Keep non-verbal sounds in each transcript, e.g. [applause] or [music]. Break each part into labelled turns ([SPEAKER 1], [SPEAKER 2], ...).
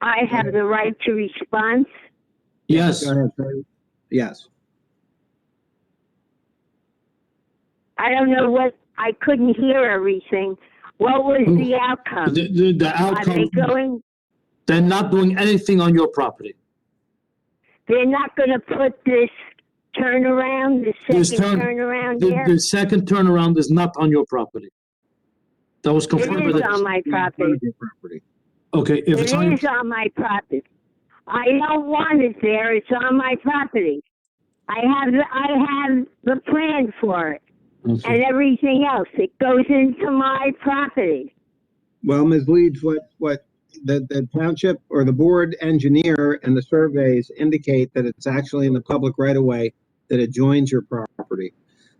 [SPEAKER 1] I have the right to respond.
[SPEAKER 2] Yes,
[SPEAKER 3] Go ahead, Shirley. Yes.
[SPEAKER 1] I don't know what, I couldn't hear everything. What was the outcome?
[SPEAKER 2] the, the, the
[SPEAKER 1] Are they
[SPEAKER 2] outcome,
[SPEAKER 1] going,
[SPEAKER 2] they're not doing anything on your property.
[SPEAKER 1] they're not gonna put this turnaround, the
[SPEAKER 2] This
[SPEAKER 1] second
[SPEAKER 2] turn-
[SPEAKER 1] turnaround
[SPEAKER 2] The,
[SPEAKER 1] there?
[SPEAKER 2] the second turnaround is not on your property. That was confirmed
[SPEAKER 1] It
[SPEAKER 2] with
[SPEAKER 1] is
[SPEAKER 2] the,
[SPEAKER 1] on my
[SPEAKER 3] Yeah,
[SPEAKER 1] property.
[SPEAKER 3] your property.
[SPEAKER 2] okay, if it's on,
[SPEAKER 1] It
[SPEAKER 2] your-
[SPEAKER 1] is on my property. I don't want it there, it's on my property. I have, the- I have the plan for it
[SPEAKER 2] okay.
[SPEAKER 1] and everything else. It goes into my property.
[SPEAKER 3] Well, Ms. Leeds, what, what, the, the township or the board engineer and the surveys indicate that it's actually in the public right of way that it joins your property.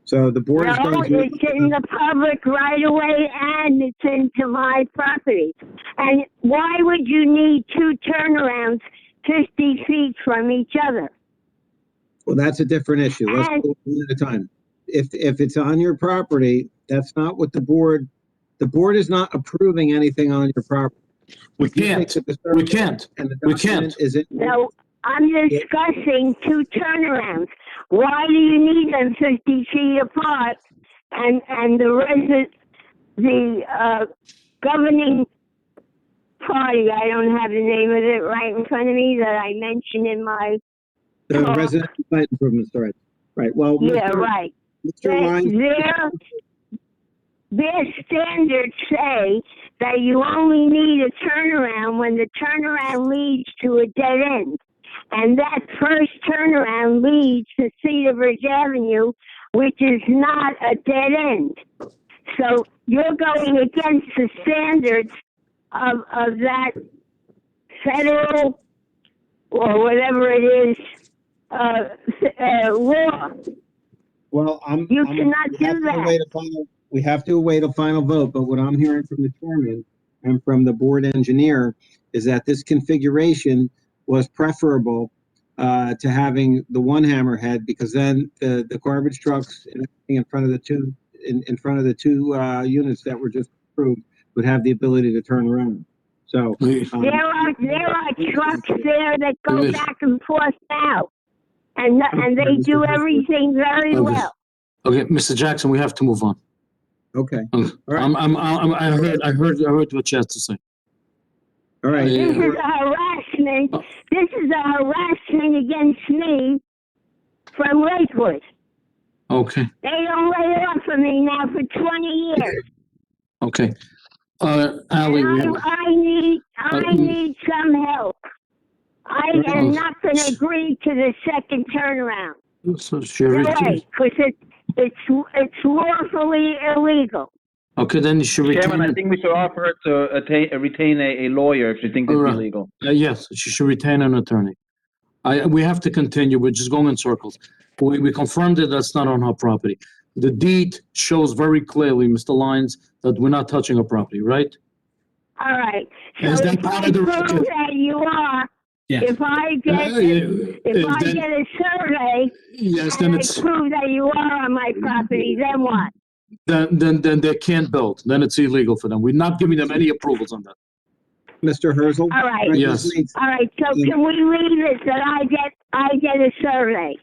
[SPEAKER 3] So the board is
[SPEAKER 1] No,
[SPEAKER 3] going to.
[SPEAKER 1] it's in the public right away and it's into my property. And why would you need two turnarounds fifty feet from each other?
[SPEAKER 3] Well, that's a different issue. Let's
[SPEAKER 1] And-
[SPEAKER 3] go one at a time. If, if it's on your property, that's not what the board, the board is not approving anything on your property.
[SPEAKER 2] We
[SPEAKER 3] You think
[SPEAKER 2] can't,
[SPEAKER 3] that the
[SPEAKER 2] we
[SPEAKER 3] survey
[SPEAKER 2] can't.
[SPEAKER 3] and the
[SPEAKER 2] we
[SPEAKER 3] document
[SPEAKER 2] can't.
[SPEAKER 3] Is it?
[SPEAKER 1] No, I'm discussing two turnarounds. Why do you need them fifty feet apart? And, and the resi the, uh, governing party, I don't have the name of it right in front of me that I mentioned in my,
[SPEAKER 3] The
[SPEAKER 1] Uh,
[SPEAKER 3] residential site improvements, right, right, well,
[SPEAKER 1] yeah,
[SPEAKER 3] Mr.
[SPEAKER 1] right.
[SPEAKER 3] Mr.
[SPEAKER 1] They-
[SPEAKER 3] Lyons,
[SPEAKER 1] Their, their standards say that you only need a turnaround when the turnaround leads to a dead end. And that first turnaround leads to Cedar Bridge Avenue, which is not a dead end. So you're going against the standards of, of that federal or whatever it is, uh, uh, law.
[SPEAKER 3] well, I'm.
[SPEAKER 1] You
[SPEAKER 3] I'm-
[SPEAKER 1] cannot
[SPEAKER 3] we
[SPEAKER 1] do
[SPEAKER 3] have to
[SPEAKER 1] that.
[SPEAKER 3] await a final- We have to await a final vote, but what I'm hearing from the chairman and from the board engineer is that this configuration was preferable uh, to having the one hammerhead, because then the, the garbage trucks and everything in front of the two, in, in front of the two uh, units that were just approved would have the ability to turn around, so.
[SPEAKER 2] We-
[SPEAKER 3] um,
[SPEAKER 1] There are, there are trucks there that go
[SPEAKER 2] Yes.
[SPEAKER 1] back and forth now. And, th- and they do everything very well.
[SPEAKER 2] Okay, Mr. Jackson, we have to move on.
[SPEAKER 3] Okay, all
[SPEAKER 2] Mm.
[SPEAKER 3] right,
[SPEAKER 2] I'm, I'm, I'm, I heard, I heard, I heard what you had to say.
[SPEAKER 3] all right.
[SPEAKER 1] This is
[SPEAKER 2] Yeah.
[SPEAKER 1] a harassment,
[SPEAKER 2] Uh.
[SPEAKER 1] this is a harassment against me from Lakewood.
[SPEAKER 2] Okay,
[SPEAKER 1] They don't lay off of me now for twenty
[SPEAKER 2] [laughs]
[SPEAKER 1] years.
[SPEAKER 2] okay. Uh, Ally, we
[SPEAKER 1] I,
[SPEAKER 2] have-
[SPEAKER 1] I need, I
[SPEAKER 2] Uh,
[SPEAKER 1] need some help. I
[SPEAKER 2] Uh,
[SPEAKER 1] am not gonna agree to the second turnaround.
[SPEAKER 2] so Sherry,
[SPEAKER 1] Right, cause it, it's, it's lawfully illegal.
[SPEAKER 2] okay, then you should
[SPEAKER 4] Chairman, I
[SPEAKER 2] retain,
[SPEAKER 4] think we should offer her to attain, retain a, a lawyer if she thinks it's
[SPEAKER 2] Alright.
[SPEAKER 4] illegal.
[SPEAKER 2] uh, yes, she should retain an attorney. I, we have to continue, we're just going in circles. We, we confirmed that that's not on her property. The deed shows very clearly, Mr. Lyons, that we're not touching her property, right?
[SPEAKER 1] All right. So
[SPEAKER 2] Is that
[SPEAKER 1] if
[SPEAKER 2] part
[SPEAKER 1] I
[SPEAKER 2] of the
[SPEAKER 1] prove
[SPEAKER 2] record?
[SPEAKER 1] that you are,
[SPEAKER 2] Yeah.
[SPEAKER 1] if I
[SPEAKER 2] Uh,
[SPEAKER 1] get, if I
[SPEAKER 2] then-
[SPEAKER 1] get a survey
[SPEAKER 2] Yes, then
[SPEAKER 1] and I
[SPEAKER 2] it's, Mm-hmm.
[SPEAKER 1] prove that you are on my property, then what?
[SPEAKER 2] then, then, then they can't build, then it's illegal for them. We're not giving them any approvals on that.
[SPEAKER 3] Mr. Herzl?
[SPEAKER 1] All right.
[SPEAKER 3] Right, Ms.
[SPEAKER 2] Yes.
[SPEAKER 3] Leeds?
[SPEAKER 1] All right, so
[SPEAKER 2] Mm-hmm.
[SPEAKER 3] Mm.
[SPEAKER 1] can we leave it that I get, I get a survey?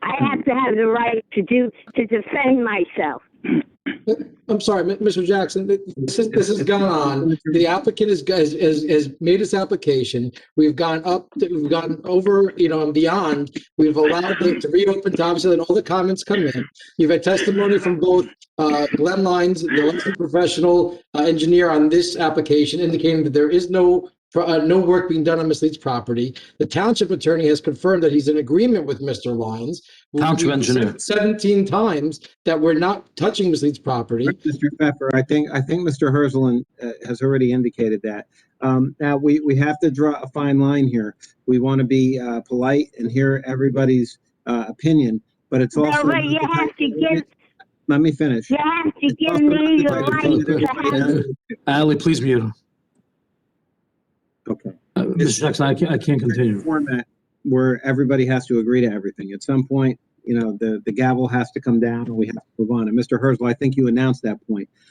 [SPEAKER 1] I have
[SPEAKER 2] Mm-hmm.
[SPEAKER 1] to have the right to do, to defend myself.
[SPEAKER 5] I'm sorry, Mi- Mr. Jackson, th- this is, this has gone on. The applicant is, has, has, has made his application. We've gone up, to- we've gone over, you know, and beyond. We've allowed it to reopen, to obviously, let all the comments come in. You've had testimony from both, uh, Glenn Lyons, the licensed professional uh, engineer on this application indicating that there is no, pro- uh, no work being done on Ms. Leeds' property. The township attorney has confirmed that he's in agreement with Mr. Lyons. We-
[SPEAKER 2] Township
[SPEAKER 5] we've
[SPEAKER 2] engineer.
[SPEAKER 5] said Seventeen times that we're not touching Ms. Leeds' property.
[SPEAKER 3] Mr. Pfeffer, I think, I think Mr. Herzlin uh, has already indicated that. Um, Now, we, we have to draw a fine line here. We want to be uh, polite and hear everybody's uh, opinion, but it's
[SPEAKER 1] No,
[SPEAKER 3] also.
[SPEAKER 1] but you have to give,
[SPEAKER 3] Let me finish.
[SPEAKER 1] you have to
[SPEAKER 3] It's
[SPEAKER 1] give
[SPEAKER 3] also not
[SPEAKER 1] me the
[SPEAKER 3] the
[SPEAKER 2] right
[SPEAKER 1] right
[SPEAKER 3] type of-
[SPEAKER 1] to have,
[SPEAKER 2] Ally, please mute her.
[SPEAKER 3] Okay.
[SPEAKER 2] Uh, Mr. Jackson, I can't, I can't continue.
[SPEAKER 3] Format where everybody has to agree to everything. At some point, you know, the, the gavel has to come down and we have to move on. And Mr. Herzl, I think you announced that point.